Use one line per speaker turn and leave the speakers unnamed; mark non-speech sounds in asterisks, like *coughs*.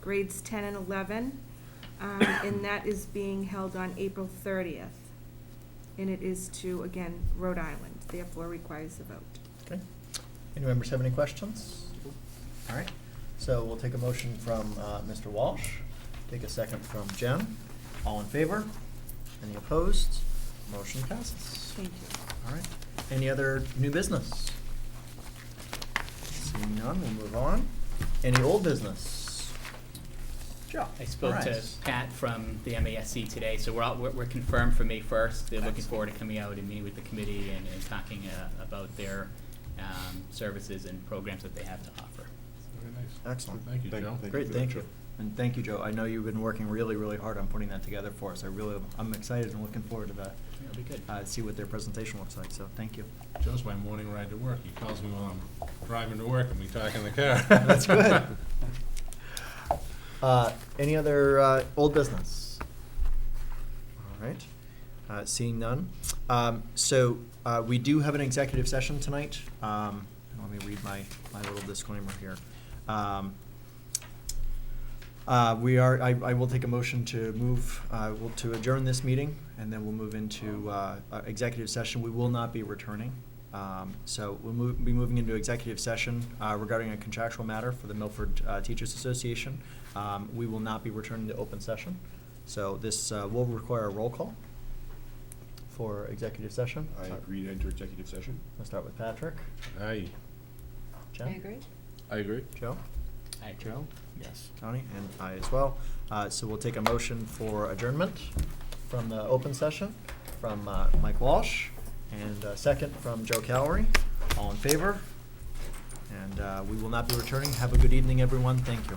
grades 10 and 11, um, *coughs* and that is being held on April 30th. And it is to, again, Rhode Island, therefore requires a vote.
Okay. Any members have any questions? All right, so we'll take a motion from uh, Mr. Walsh, take a second from Jen. All in favor? Any opposed? Motion passes.
Thank you.
All right, any other new business? Seeing none, we'll move on. Any old business? Joe?
I spoke to
Alright.
Pat from the MASC today, so we're all, we're, we're confirmed for May first. They're looking forward to
Excellent.
coming out and meeting with the committee and, and talking, uh, about their, um, services and programs that they have to offer.
Very nice.
Excellent.
Thank you, Joe.
Great, thank you. And thank you, Joe. I know you've been working really, really hard on putting that together for us. I really, I'm excited and looking forward to that,
It'll be good.
uh, see what their presentation looks like, so thank you.
Joe's my morning ride to work. He calls me while I'm driving to work and we talk in the car.
That's
*laughs*
good. Uh, any other, uh, old business? All right, uh, seeing none. Um, so, uh, we do have an executive session tonight. Um, let me read my, my little disclaimer here. Um, uh, we are, I, I will take a motion to move, uh, will, to adjourn this meeting, and then we'll move into, uh, uh, executive session. We will not be returning. Um, so we'll move, be moving into executive session, uh, regarding a contractual matter for the Milford, uh, Teachers Association. Um, we will not be returning to open session. So this, uh, will require a roll call for executive session.
I agree to enter executive session.
Let's start with Patrick.
I,
Jen?
I agree.
Joe?
Hi,
Joe?
Yes.
Tony? And I as well. Uh, So we'll take a motion for adjournment from the open session from uh, Mike Walsh and a second from Joe Calery. All in favor? And uh, we will not be returning. Have a good evening, everyone. Thank you.